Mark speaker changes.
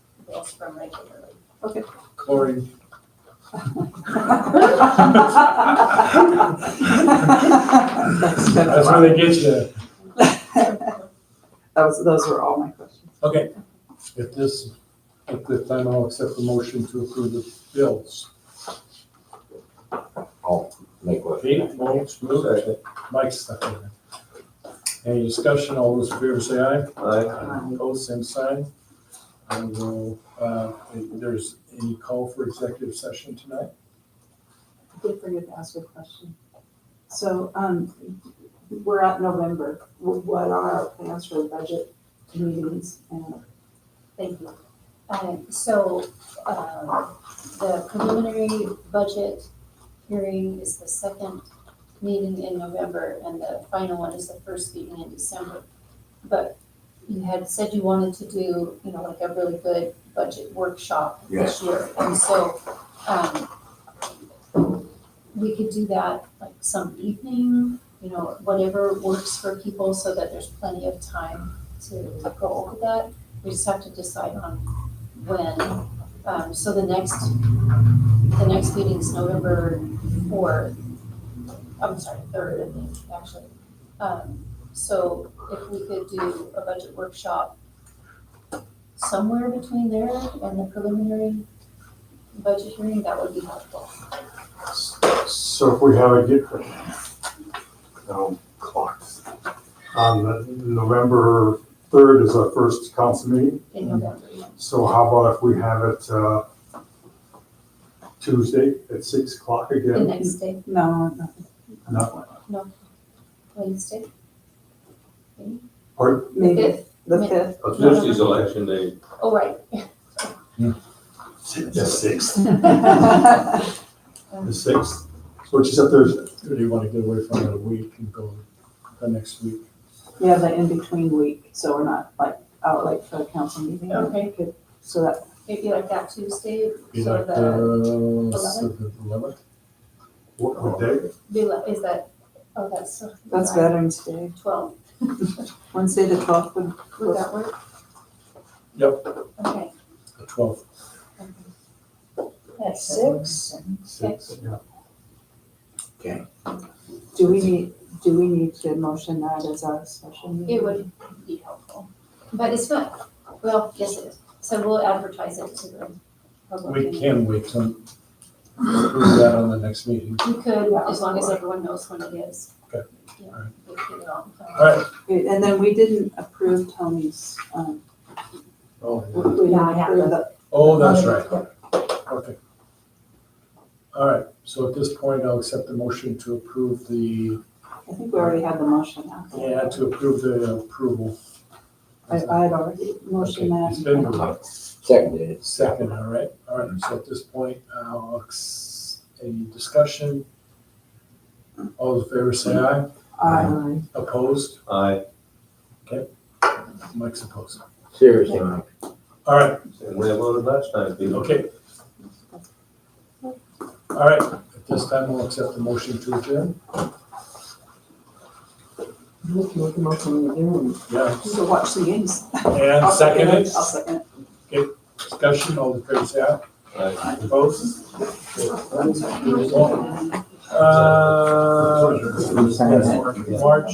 Speaker 1: calls from regularly.
Speaker 2: Corey. That's how they get you.
Speaker 3: Those, those were all my questions.
Speaker 2: Okay. At this, at this time, I'll accept the motion to approve the bills.
Speaker 4: I'll make what.
Speaker 2: Kate, Lawrence, moved. Mike's second. Any discussion? All those in favor say aye.
Speaker 3: Aye.
Speaker 2: Opposed, same sign. I will, uh, if there's any call for executive session tonight?
Speaker 3: I did forget to ask a question. So, um, we're at November. Wh- What are our plans for the budget meetings? And
Speaker 1: Thank you. Um, so, um, the preliminary budget hearing is the second meeting in November, and the final one is the first meeting in December. But you had said you wanted to do, you know, like a really good budget workshop this year, and so, um, we could do that like some evening, you know, whatever works for people, so that there's plenty of time to go over that. We just have to decide on when. Um, so the next, the next meeting's November fourth. I'm sorry, third, I think, actually. Um, so if we could do a budget workshop somewhere between there and the preliminary budget hearing, that would be helpful.
Speaker 5: So if we have a get, no, clocks. Um, November third is our first council meeting,
Speaker 1: In November, yeah.
Speaker 5: so how about if we have it, uh, Tuesday at six o'clock
Speaker 1: the
Speaker 5: again?
Speaker 1: next day,
Speaker 3: No, nothing.
Speaker 5: No,
Speaker 1: Wednesday,
Speaker 5: or,
Speaker 3: Maybe
Speaker 1: fifth.
Speaker 3: the fifth,
Speaker 6: It's Tuesday's election day.
Speaker 1: Oh, right.
Speaker 5: the sixth,
Speaker 3: I
Speaker 5: the sixth, which is a Thursday.
Speaker 2: Or do you want to get away from it a week and go the next week?
Speaker 3: we have the in-between week, so we're not like out late for the council meeting.
Speaker 1: Okay.
Speaker 3: Good. So that,
Speaker 1: Maybe like that Tuesday,
Speaker 2: Be
Speaker 1: so
Speaker 2: like
Speaker 1: the,
Speaker 2: the eleventh?
Speaker 5: What, what day?
Speaker 1: be like, is that, oh, that's.
Speaker 3: that's Veterans Day.
Speaker 1: Twelve,
Speaker 3: Wednesday the twelfth would,
Speaker 1: would that work?
Speaker 2: Yep.
Speaker 1: Okay.
Speaker 2: The twelfth.
Speaker 1: At six?
Speaker 5: Six, yeah.
Speaker 3: do we need, do we need to motion that as our special meeting?
Speaker 1: It would be helpful, but it's not, well, yes it is, so we'll advertise it to the public.
Speaker 2: We can wait till, do that on the next meeting.
Speaker 1: You could, as long as everyone knows when it is.
Speaker 2: Okay.
Speaker 1: Yeah,
Speaker 2: All right.
Speaker 1: we'll get it on.
Speaker 2: All right.
Speaker 3: Okay, And then we didn't approve Tony's, um, we
Speaker 2: Oh,
Speaker 3: we
Speaker 1: Yeah, I
Speaker 3: didn't
Speaker 1: have
Speaker 3: approve
Speaker 1: to-
Speaker 3: the
Speaker 2: Oh, that's right. Okay. All right, so at this point, I'll accept the motion to approve the,
Speaker 3: I think we already had the motion out.
Speaker 2: yeah, to approve the approval.
Speaker 3: I, I had already motioned
Speaker 2: Okay, It's been
Speaker 3: that.
Speaker 2: moved.
Speaker 4: Seconded.
Speaker 2: Second, all right, all right, so at this point, I'll, ex- any discussion? All those in favor say aye.
Speaker 3: Uh,
Speaker 2: Opposed?
Speaker 6: Aye.
Speaker 2: Mike's opposed.
Speaker 4: Seriously, Mike.
Speaker 2: All right,
Speaker 6: And we voted last time, people.
Speaker 2: okay. All right, at this time, we'll accept the motion to adjourn. Yeah,
Speaker 3: just to watch the games.
Speaker 2: and
Speaker 3: I'll
Speaker 2: second
Speaker 3: it.
Speaker 2: it,
Speaker 3: I'll second it.
Speaker 2: discussion, all the favors say aye.
Speaker 6: Aye.
Speaker 2: Opposed? Uh, yes, March